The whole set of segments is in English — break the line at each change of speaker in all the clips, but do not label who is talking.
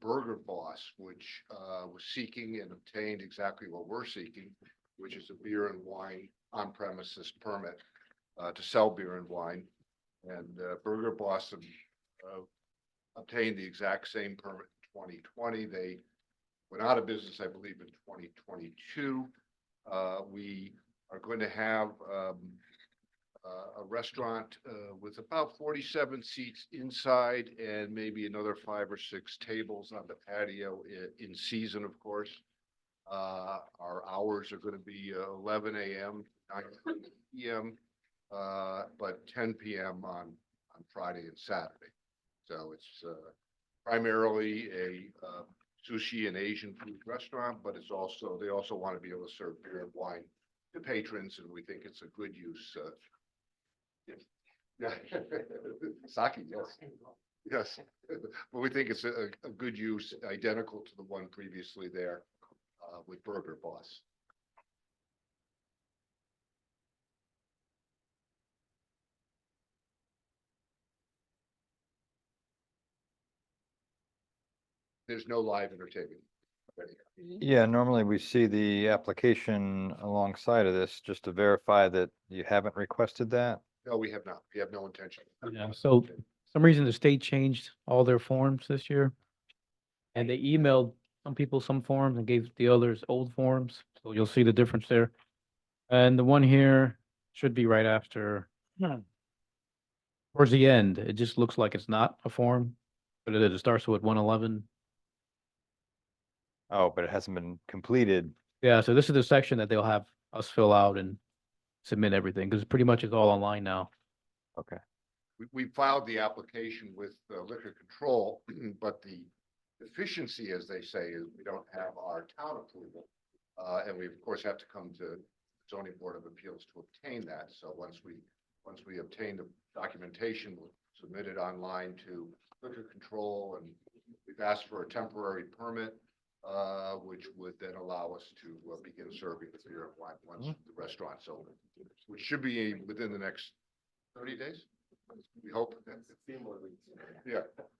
Burger Boss, which uh, was seeking and obtained exactly what we're seeking, which is a beer and wine on premises permit uh, to sell beer and wine. And uh, Burger Boss um, uh, obtained the exact same permit in twenty twenty. They went out of business, I believe, in twenty twenty-two. Uh, We are going to have um, uh, a restaurant uh, with about forty-seven seats inside and maybe another five or six tables on the patio i- in season, of course. Uh, Our hours are gonna be uh, eleven AM, nine PM, uh, but ten PM on, on Friday and Saturday. So it's uh, primarily a uh, sushi and Asian food restaurant, but it's also, they also want to be able to serve beer and wine to patrons, and we think it's a good use uh, yeah, Saki, yes, yes, but we think it's a, a good use, identical to the one previously there, uh, with Burger Boss. There's no live entertainment.
Yeah, normally we see the application alongside of this, just to verify that you haven't requested that.
No, we have not. We have no intention.
Yeah, so- some reason the state changed all their forms this year. And they emailed some people some forms and gave the others old forms, so you'll see the difference there. And the one here should be right after. Towards the end, it just looks like it's not a form, but it is. It starts with one eleven.
Oh, but it hasn't been completed.
Yeah, so this is the section that they'll have us fill out and submit everything, because pretty much it's all online now.
we, we filed the application with uh, liquor control, but the deficiency, as they say, is we don't have our town approval. Uh, and we of course have to come to zoning board of appeals to obtain that. So once we, once we obtain the documentation, we'll submit it online to liquor control and we've asked for a temporary permit, uh, which would then allow us to uh, begin serving the beer and wine once the restaurant's open, which should be within the next thirty days. We hope. Yeah,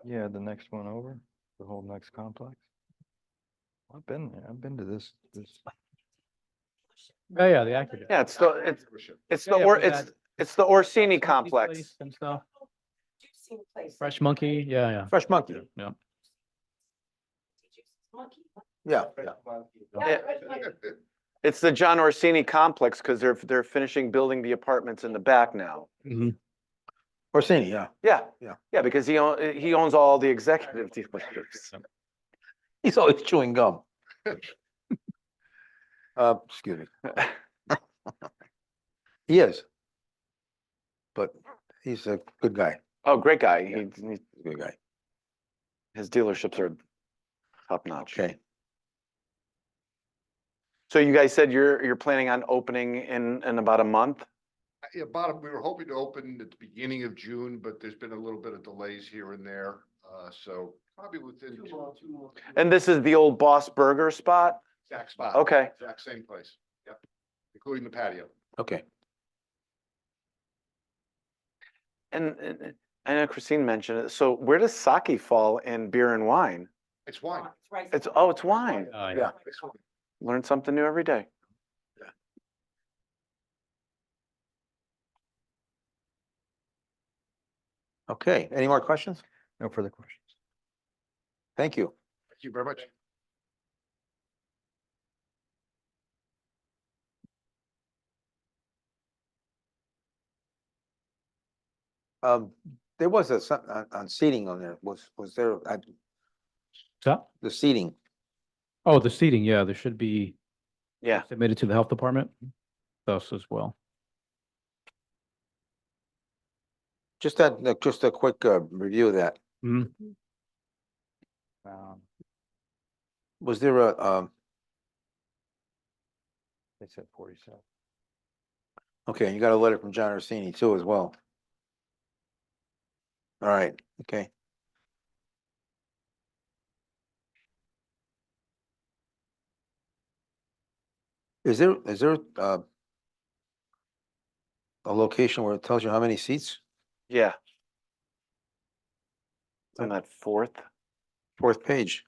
Yeah, the next one over, the whole next complex. I've been there. I've been to this, this.
Yeah, Oh, yeah, the actor.
Yeah, it's the, it's, it's
Yeah,
the,
yeah,
Or-
we got
it's, it's the Orsini
Monkey
complex.
place And stuff,
You've seen places.
Fresh Monkey, yeah, yeah.
Fresh Monkey.
Yeah.
Monkey.
Yeah.
Yeah, Fresh Monkey.
It's the John Orsini complex because they're, they're finishing building the apartments in the back now.
Orsini, yeah.
Yeah.
Yeah.
Yeah, because he, own- he owns all the executive dealerships.
He's always chewing gum. Uh, excuse me. He is. But he's a good guy,
Oh, great guy. He, he-
He's a good guy.
his dealerships are top notch.
Okay.
So you guys said you're, you're planning on opening in, in about a month?
Yeah, bottom, we were hoping to open at the beginning of June, but there's been a little bit of delays here and there, uh, so probably within two,
And this is the old Boss Burger spot?
exact spot.
Okay.
Exact same place, yep, including the patio.
Okay.
And, and and I know Christine mentioned it. So where does sake fall in beer and wine?
It's wine.
It's rice.
It's, oh, it's wine.
Yeah, yeah.
Yeah.
It's wine.
Learn something new every day.
Okay. Any more questions?
No further questions.
Thank you.
Thank you very much.
Um, there was a, some- on, on seating on there, was, was there, I-
So,
the seating,
oh, the seating, yeah, there should be
Yeah.
submitted to the health department, thus as well.
just that, like, just a quick, uh, review of that.
Um,
Was there a, um,
They said forty-seven.
okay, you got a letter from John Orsini too as well. All right, okay. Is there, is there, uh, a location where it tells you how many seats?
Yeah. On that fourth,
fourth page.